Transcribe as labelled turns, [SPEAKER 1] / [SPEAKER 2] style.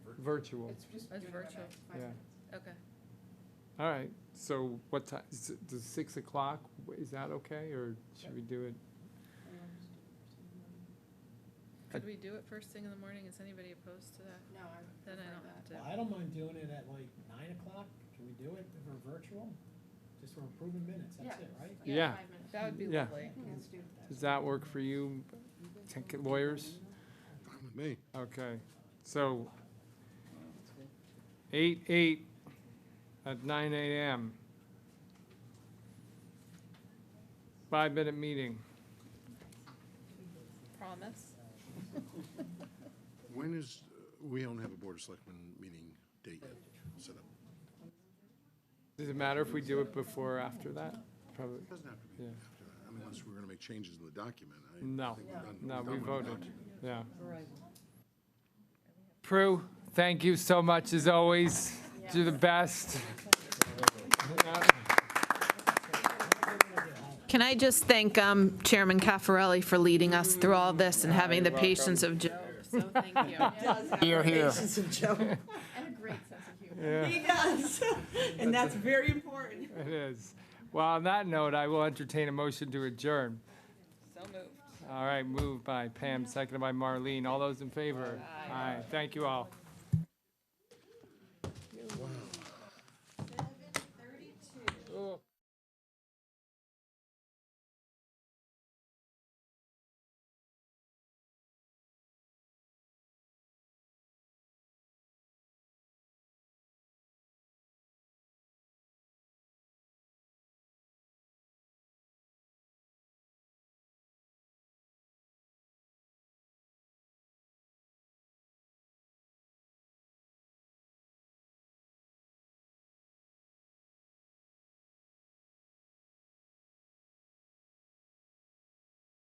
[SPEAKER 1] virtual.
[SPEAKER 2] It's just.
[SPEAKER 3] That's
[SPEAKER 2] doing it
[SPEAKER 3] virtual.
[SPEAKER 2] about five
[SPEAKER 1] Yeah.
[SPEAKER 2] minutes.
[SPEAKER 3] Okay.
[SPEAKER 1] All right, so what time, does six o'clock, is that okay, or should we do it?
[SPEAKER 3] Could we do it first thing in the morning? Is anybody opposed to that?
[SPEAKER 2] No, I would
[SPEAKER 3] Then I
[SPEAKER 2] prefer
[SPEAKER 3] don't have
[SPEAKER 2] that.
[SPEAKER 3] to.
[SPEAKER 4] Well, I don't mind doing it at like nine o'clock, can we do it for virtual? Just for improving minutes, that's it, right?
[SPEAKER 1] Yeah.
[SPEAKER 2] Five minutes.
[SPEAKER 3] That would be
[SPEAKER 1] Yeah.
[SPEAKER 3] lovely.
[SPEAKER 2] Let's do that.
[SPEAKER 1] Does that work for you, tech lawyers?
[SPEAKER 5] Me.
[SPEAKER 1] Okay, so eight, eight at nine AM. Five-minute meeting.
[SPEAKER 3] Promise.
[SPEAKER 5] When is, uh, we don't have a Board of Selectmen meeting date yet set up.
[SPEAKER 1] Does it matter if we do it before or after that? Probably,
[SPEAKER 5] It doesn't have to be
[SPEAKER 1] Yeah.
[SPEAKER 5] after that. I mean, unless we're going to make changes in the document. I
[SPEAKER 1] No.
[SPEAKER 5] think we're done-
[SPEAKER 1] No,
[SPEAKER 5] we're
[SPEAKER 1] we
[SPEAKER 5] done with the
[SPEAKER 1] voted.
[SPEAKER 5] document.
[SPEAKER 1] yeah. Prue, thank you so much, as always. Do the best.
[SPEAKER 6] Can I just thank um, Chairman Caffarelli for leading us through all this and having the
[SPEAKER 1] You're welcome.
[SPEAKER 6] patience of Joe?
[SPEAKER 3] So thank you.
[SPEAKER 7] Here, here.
[SPEAKER 2] And a great sense of humor.
[SPEAKER 1] Yeah.
[SPEAKER 8] He does, and that's very important.
[SPEAKER 1] It is. Well, on that note, I will entertain a motion to adjourn.
[SPEAKER 3] So moved.
[SPEAKER 1] All right, moved by Pam, seconded by Marlene. All those in favor? Aye. Thank you all.